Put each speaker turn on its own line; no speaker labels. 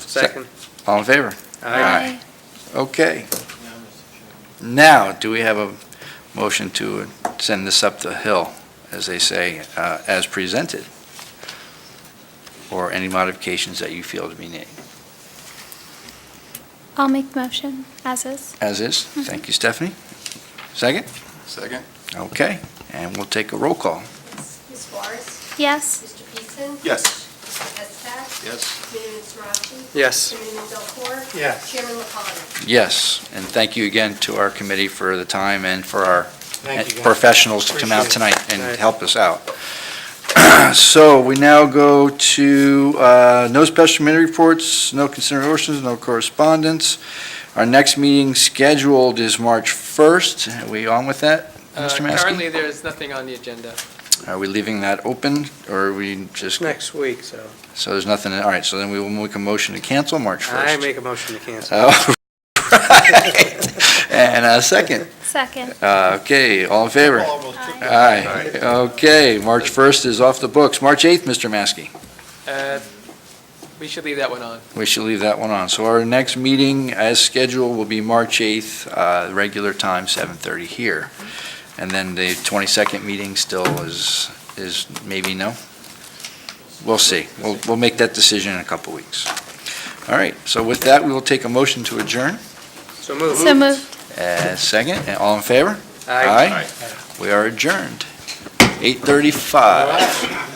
Second.
All in favor?
Aye.
Okay. Now, do we have a motion to send this up the hill, as they say, uh, as presented? Or any modifications that you feel to be needed?
I'll make the motion as is.
As is? Thank you, Stephanie. Second?
Second?
Okay, and we'll take a roll call.
Ms. Forrest?
Yes.
Mr. Peterson?
Yes.
Mr. Hestack?
Yes.
Committeeman Sarachi?
Yes.
Committeeman Delcor?
Yes.
Chairman LaFawn?
Yes, and thank you again to our committee for the time and for our
Thank you, guys.
professionals to come out
Appreciate
tonight and
Right.
help us out. So we now go to uh, no special committee reports, no considerations, no correspondence. Our next meeting scheduled is March 1st. Are we on with that,
Uh,
Mr. Maskey?
Currently, there is nothing on the agenda.
Are we leaving that open, or are we just,
Next week, so
so there's nothing, all right, so then we will make a motion to cancel March
I
1st.
make a motion to cancel.
Oh, right. And a second.
Second.
Uh, Okay, all in favor?
Aye.
Aye. Okay, March 1st is off the books. March 8th, Mr. Maskey.
Uh, We should leave that one on.
We should leave that one on. So our next meeting, as scheduled, will be March 8th, uh, regular time, 7:30 here. And then the 22nd meeting still is, is maybe no? We'll see. We'll, we'll make that decision in a couple weeks. All right, so with that, we will take a motion to adjourn.
So move.
So moved.
Uh, Second, and all in favor?
Aye.
We are adjourned. 8:35.